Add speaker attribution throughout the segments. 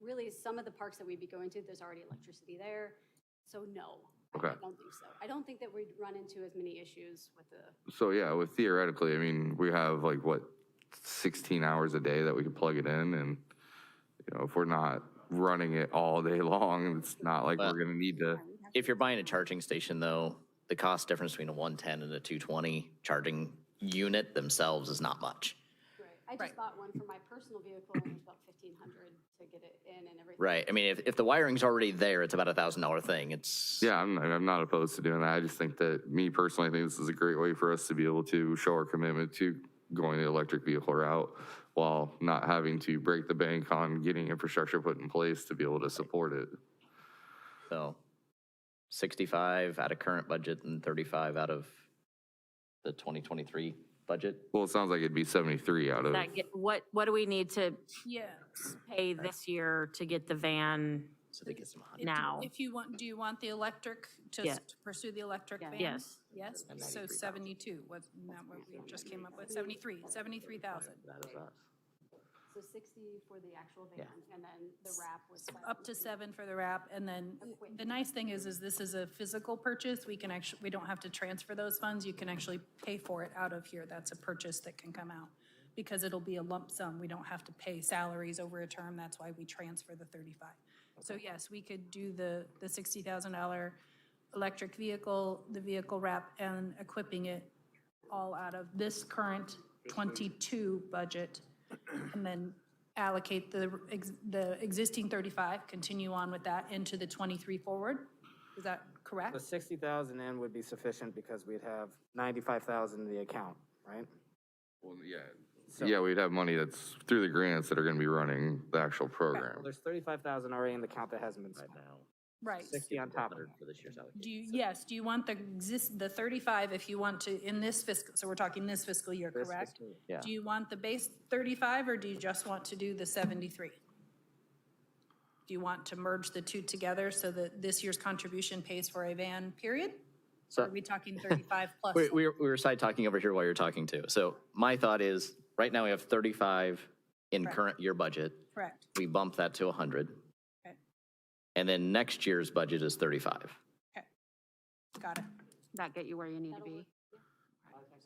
Speaker 1: really, some of the parks that we'd be going to, there's already electricity there. So no, I
Speaker 2: Okay.
Speaker 1: don't think so. I don't think that we'd run into as many issues with the,
Speaker 2: So yeah, with theoretically, I mean, we have like what, 16 hours a day that we could plug it in and, you know, if we're not running it all day long, it's not like we're gonna need to,
Speaker 3: If you're buying a charging station though, the cost difference between a 110 and a 220 charging unit themselves is not much.
Speaker 1: I just bought one for my personal vehicle and it was about fifteen hundred to get it in and everything.
Speaker 3: Right. I mean, if, if the wiring's already there, it's about a thousand dollar thing. It's
Speaker 2: yeah, I'm, I'm not opposed to doing that. I just think that, me personally, I think this is a great way for us to be able to show our commitment to going the electric vehicle route while not having to break the bank on getting infrastructure put in place to be able to support it.
Speaker 3: so 65 out of current budget and 35 out of the 2023 budget.
Speaker 2: Well, it sounds like it'd be 73 out of,
Speaker 4: That get, what, what do we need to
Speaker 5: Yeah.
Speaker 4: pay this year to get the van?
Speaker 3: So they get some hundred.
Speaker 4: Now.
Speaker 5: If you want, do you want the electric, to
Speaker 4: Yeah.
Speaker 5: s- to pursue the electric van?
Speaker 4: Yes.
Speaker 5: Yes, so 72, was, not what we just came up with, 73, 73,000.
Speaker 1: So sixty for the actual van and then the wrap was.
Speaker 5: Up to seven for the wrap, and then the nice thing is, is this is a physical purchase. We can actually, we don't have to transfer those funds. You can actually pay for it out of here. That's a purchase that can come out. Because it'll be a lump sum. We don't have to pay salaries over a term. That's why we transfer the 35. So yes, we could do the, the $60,000 electric vehicle, the vehicle wrap, and equipping it all out of this current 22 budget, and then allocate the, ex- the existing 35, continue on with that into the 23 forward? Is that correct?
Speaker 6: The sixty thousand in would be sufficient because we'd have ninety-five thousand in the account, right?
Speaker 2: Well, yeah. Yeah, we'd have money that's through the grants that are gonna be running the actual program.
Speaker 6: There's thirty-five thousand already in the account that hasn't been spent.
Speaker 5: Right.
Speaker 6: Sixty on top of that.
Speaker 3: For this year's allocation.
Speaker 5: Do you, yes, do you want the exist, the 35 if you want to, in this fiscal, so we're talking this fiscal year,
Speaker 6: This
Speaker 5: correct?
Speaker 6: fiscal year.
Speaker 3: Yeah.
Speaker 5: Do you want the base 35, or do you just want to do the 73? Do you want to merge the two together so that this year's contribution pays for a van, period? Or
Speaker 3: So-
Speaker 5: Are we talking 35 plus?
Speaker 3: We, we, were- we were side talking over here while you're talking too. So my thought is, right now we have 35 in current year budget.
Speaker 5: Correct,
Speaker 3: We bump that to 100.
Speaker 5: Okay.
Speaker 3: And then next year's budget is 35.
Speaker 5: got it.
Speaker 4: That get you where you need to be?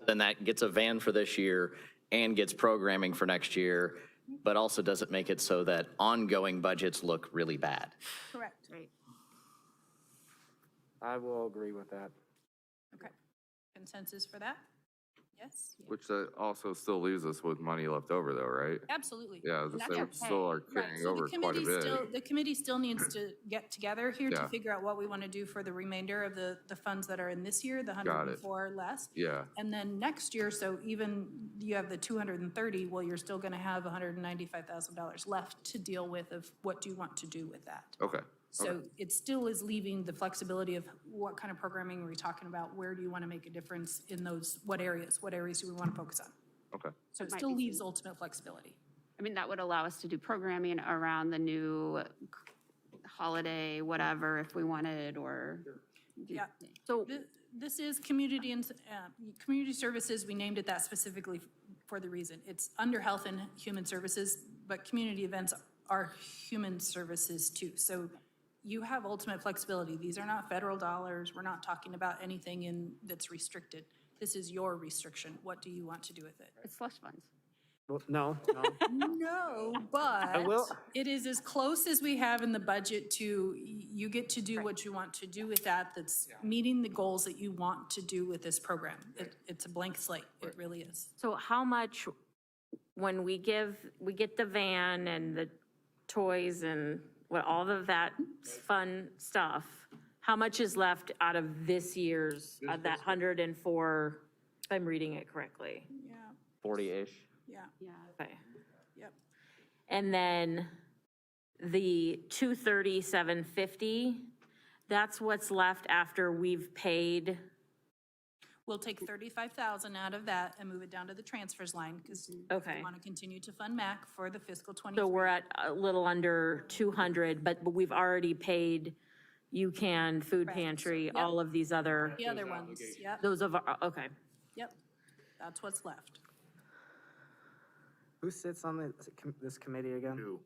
Speaker 3: Then that gets a van for this year and gets programming for next year, but also doesn't make it so that ongoing budgets look really bad.
Speaker 5: Correct,
Speaker 4: Right.
Speaker 6: I will agree with that.
Speaker 5: okay. Consensus for that? Yes?
Speaker 2: Which that also still leaves us with money left over though, right?
Speaker 5: Absolutely.
Speaker 2: Yeah, I was gonna say, we
Speaker 5: That's okay.
Speaker 2: still are
Speaker 5: Right,
Speaker 2: carrying
Speaker 5: so the
Speaker 2: over quite a
Speaker 5: committee
Speaker 2: bit.
Speaker 5: still- The committee still needs to get together here
Speaker 2: Yeah.
Speaker 5: to figure out what we want to do for the remainder of the, the funds that are in this year, the
Speaker 2: Got it.
Speaker 5: 104 less.
Speaker 2: Yeah,
Speaker 5: And then next year, so even you have the 230, well, you're still going to have $195,000 left to deal with of what do you want to do with that?
Speaker 2: okay.
Speaker 5: So it still is leaving the flexibility of what kind of programming are we talking about? Where do you want to make a difference in those, what areas? What areas do we want to focus on?
Speaker 2: Okay.
Speaker 5: So it still leaves ultimate flexibility.
Speaker 7: I mean, that would allow us to do programming around the new holiday, whatever, if we wanted, or.
Speaker 5: Yeah.
Speaker 4: So
Speaker 5: Th- This is community and, uh, community services, we named it that specifically for the reason. It's under health and human services, but community events are human services too. So you have ultimate flexibility. These are not federal dollars. We're not talking about anything in, that's restricted. This is your restriction. What do you want to do with it?
Speaker 7: It's slush funds.
Speaker 6: Well, no, no.
Speaker 5: No, but
Speaker 6: will-
Speaker 5: it is as close as we have in the budget to, y- you get to do what you want to do with that, that's meeting the goals that you want to do with this program. It, it's a blank slate, it really is.
Speaker 4: So how much, when we give, we get the van and the toys and what, all of that fun stuff, how much is left out of this year's, of that 104, if I'm reading it correctly?
Speaker 5: Yeah,
Speaker 3: 40-ish.
Speaker 5: yeah,
Speaker 4: Okay.
Speaker 5: yep.
Speaker 4: And then the 230, that's what's left after we've paid,
Speaker 5: We'll take thirty-five thousand out of that and move it down to the transfers line, because we
Speaker 4: Mm-hmm. okay.
Speaker 5: want to continue to fund MAC for the fiscal twenty.
Speaker 4: So we're at a little under 200, but but we've already paid UCAN, Food
Speaker 5: Correct.
Speaker 4: Pantry,
Speaker 5: Yep.
Speaker 4: all of these other,
Speaker 5: The other ones, yep,
Speaker 4: those of, our- okay.
Speaker 5: yep, that's what's left.
Speaker 6: Who sits on this, com- this committee again?